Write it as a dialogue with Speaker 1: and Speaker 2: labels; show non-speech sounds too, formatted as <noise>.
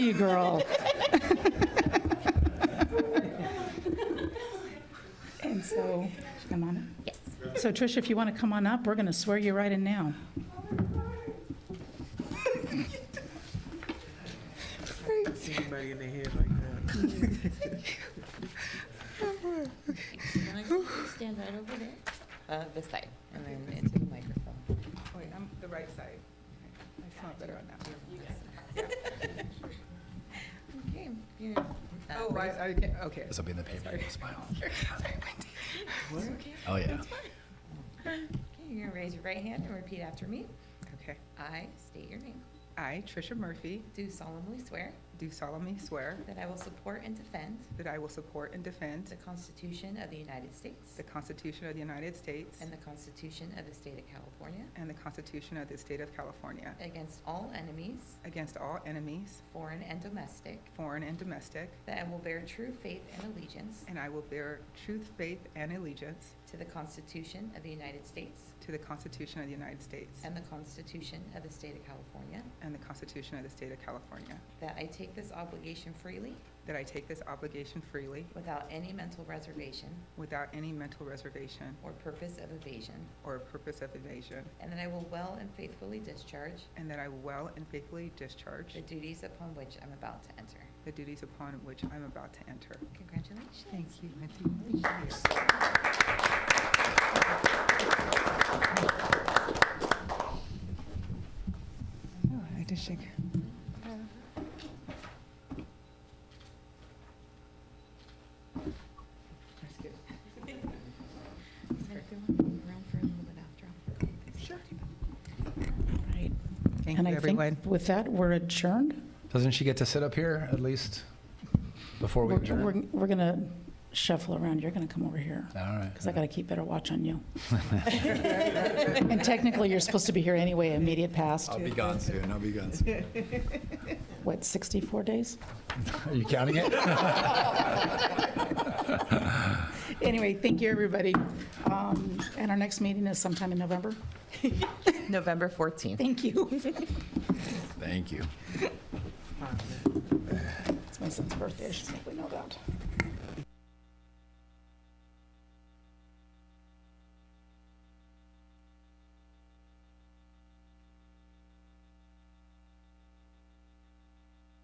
Speaker 1: you, girl. And so, should I come on up?
Speaker 2: Yes.
Speaker 1: So Tricia, if you want to come on up, we're going to swear you right in now.
Speaker 3: Anybody in their head like that?
Speaker 2: Why don't you <laughs> Stand right over there. Uh, this side, and then into the microphone.
Speaker 4: Wait, I'm the right side. I smell better
Speaker 2: <laughs>
Speaker 4: on that.
Speaker 2: Okay. you, uh,
Speaker 4: Oh,
Speaker 2: raise-
Speaker 4: I, I can't, okay.
Speaker 5: This will be in the paper.
Speaker 4: Sorry.
Speaker 5: Smile.
Speaker 4: Sorry, Wendy.
Speaker 2: It's okay.
Speaker 5: Oh, yeah.
Speaker 2: Okay, You're gonna raise your right hand and repeat after me.
Speaker 4: Okay.
Speaker 2: I state your name.
Speaker 4: I, Tricia Murphy,
Speaker 2: Do solemnly swear
Speaker 4: do solemnly swear
Speaker 2: that I will support and defend
Speaker 4: that I will support and defend
Speaker 2: the Constitution of the United States
Speaker 4: the Constitution of the United States
Speaker 2: and the Constitution of the State of California
Speaker 4: and the Constitution of the State of California
Speaker 2: against all enemies,
Speaker 4: against all enemies,
Speaker 2: foreign and domestic,
Speaker 4: foreign and domestic,
Speaker 2: that I will bear true faith and allegiance
Speaker 4: and I will bear truth, faith, and allegiance
Speaker 2: to the Constitution of the United States
Speaker 4: to the Constitution of the United States
Speaker 2: and the Constitution of the State of California,
Speaker 4: and the Constitution of the State of California,
Speaker 2: that I take this obligation freely
Speaker 4: that I take this obligation freely
Speaker 2: without any mental reservation
Speaker 4: without any mental reservation
Speaker 2: or purpose of evasion,
Speaker 4: or purpose of evasion,
Speaker 2: and that I will well and faithfully discharge
Speaker 4: And that I will well and faithfully discharge
Speaker 2: the duties upon which I'm about to enter.
Speaker 4: the duties upon which I'm about to enter.
Speaker 2: Congratulations.
Speaker 4: Thank you, Wendy. Oh, I just shake. That's good. <laughs>
Speaker 1: Right.
Speaker 4: Thank
Speaker 1: And
Speaker 4: you,
Speaker 1: I
Speaker 4: everyone.
Speaker 1: think with that, we're adjourned.
Speaker 5: Doesn't she get to sit up here at least before we
Speaker 1: We're- We're
Speaker 5: adjourn?
Speaker 1: we're going to shuffle around. You're going to come over here
Speaker 5: All right.
Speaker 1: because I
Speaker 5: <laughs>
Speaker 1: got to keep <laughs> better watch on you. And technically, you're supposed to be here anyway, immediate past,
Speaker 5: I'll be gone soon. I'll be gone soon.
Speaker 1: what, 64 days?
Speaker 5: <laughs> Are you counting it?
Speaker 1: Anyway, thank you, everybody. Um, And our next meeting is sometime in November.
Speaker 2: November 14th.
Speaker 1: Thank you.
Speaker 5: Thank you.
Speaker 1: It's my son's birthday, I should think we know that.